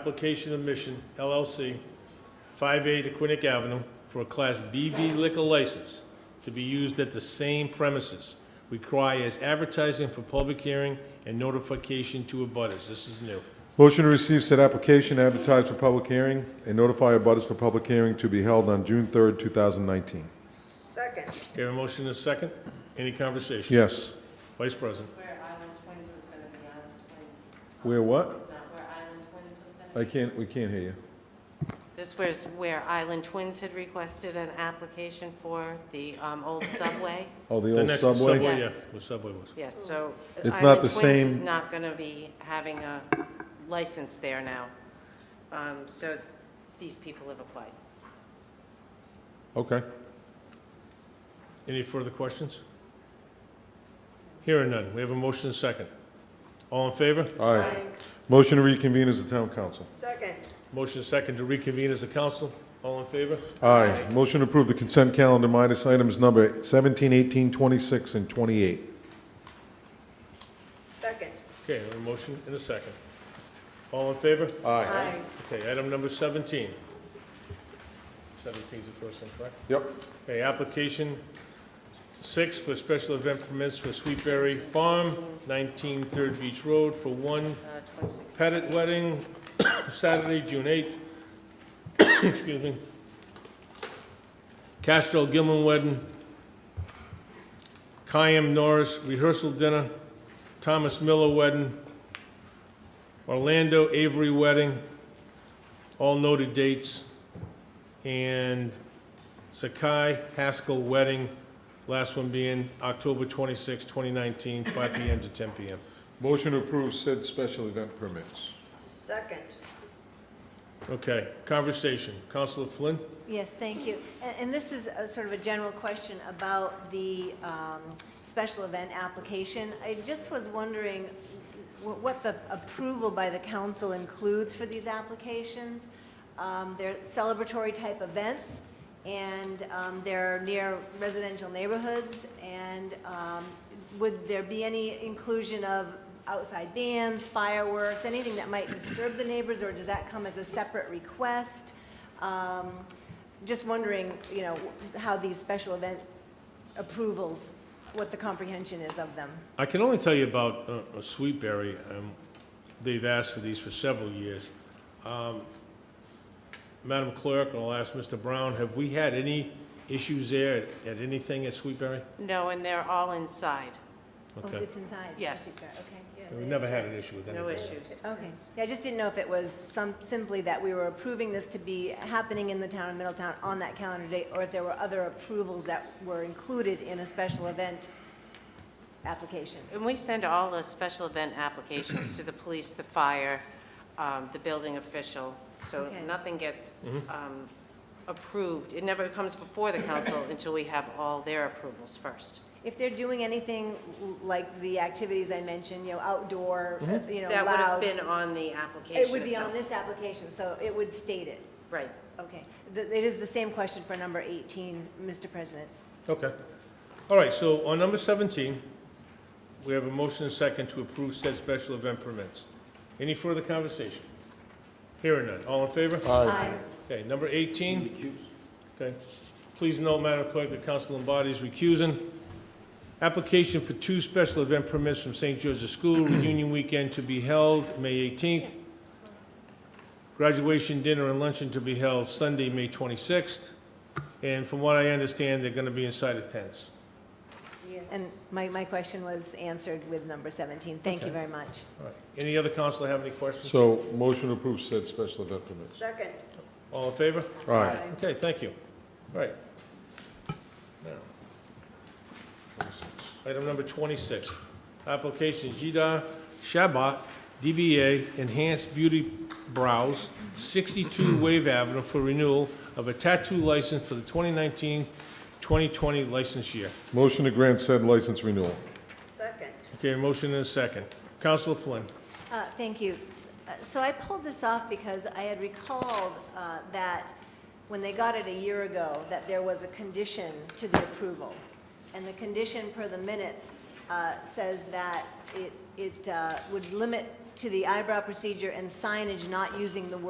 Application of Mission LLC, 5A to Quinic Avenue, for a Class BV liquor license to be used at the same premises. Requires advertising for public hearing and notification to abutters. This is new. Motion to receive said application, advertise for public hearing, and notify abutters for public hearing to be held on June 3rd, 2019. Second, Okay, have a motion and a second? Any conversation? Yes. Vice President? Where Island Twins was gonna be, Island Twins, Where what? it's not where Island Twins was gonna I can't, we can't hear you. be. This was where Island Twins had requested an application for the um, old subway. Oh, the The old next subway? yeah, Yes. the subway was. Yes, so. It's not the Island Twins is same- not gonna be having a license there now. Um, So these people have applied. Okay. Any further questions? Hearing none. We have a motion and a second. All in favor? All right. Motion to reconvene as the town council. second, Motion and second to reconvene as a council. All in favor? Aye. Motion to approve the consent calendar minus items number 17, 18, 26, and 28. second. Okay, we have a motion and a second. All in favor? Aye. Okay, item number 17. 17 is the first one, correct? Yep. Okay, application six for special event permits for Sweetberry Farm, 19 Third Beach Road, for one Uh, 26. Pettit Wedding, Saturday, June 8th. Excuse me. Castro Gilman Wedding. Kayam Norris Rehearsal Dinner. Thomas Miller Wedding. Orlando Avery Wedding. All noted dates. And Sakai Haskell Wedding, last one being October 26, 2019, 5 PM to 10 PM. Motion to approve said special event permits. Second, Okay, conversation. Counselor Flynn? Yes, thank you. A- And this is a sort of a general question about the um, special event application. I just was wondering wh- what the approval by the council includes for these applications. Um, They're celebratory-type events, and um, they're near residential neighborhoods, and um, would there be any inclusion of outside bands, fireworks, anything that might disturb the neighbors, or does that come as a separate request? Um, Just wondering, you know, how these special event approvals, what the comprehension is of them. I can only tell you about uh, uh, Sweetberry. Um, They've asked for these for several years. Um, Madam Clerk, and I'll ask Mr. Brown, have we had any issues there at- at anything at Sweetberry? No, and they're all inside, Oh, Okay. It's inside? Yes. Okay. yeah. We've never had an issue with anything. no issues. Okay. Yeah, I just didn't know if it was some, simply that we were approving this to be happening in the town of Middletown on that calendar date, or if there were other approvals that were included in a special event application. And we send all the special event applications to the police, the fire, um, the building official, so Okay. nothing gets um, approved. It never comes before the council until we have all their approvals first. If they're doing anything l- like the activities I mentioned, you know, outdoor, uh, you know, That would have loud. been on the application It would be on itself. this application, so it would state it. Right. Okay. Th- It is the same question for number 18, Mr. President. Okay. All right, so on number 17, we have a motion and second to approve said special event permits. Any further conversation? Hearing none. All in favor? Aye. Okay, number 18. Okay. Please note, Madam Clerk, the council embodies recusing. Application for two special event permits from St. George's School reunion weekend to be held May 18th. Graduation dinner and luncheon to be held Sunday, May 26th. And from what I understand, they're going to be inside of tents. Yes. And my, my question was answered with number 17. Thank you Okay. very much. All right. Any other council have any questions? So, motion to approve said special event permits. Second, All in favor? Aye. Okay, thank you. All right. Now, Item number 26, application Jida Shabat, DBA Enhanced Beauty Brows, 62 Wave Avenue for renewal of a tattoo license for the 2019-2020 license year. Motion to grant said license renewal. second, Okay, a motion and a second. Counselor Flynn, Uh, Thank you. S- uh, So I pulled this off because I had recalled uh, that when they got it a year ago, that there was a condition to the approval. And the condition per the minutes uh, says that it, it uh, would limit to the eyebrow procedure and signage not using the word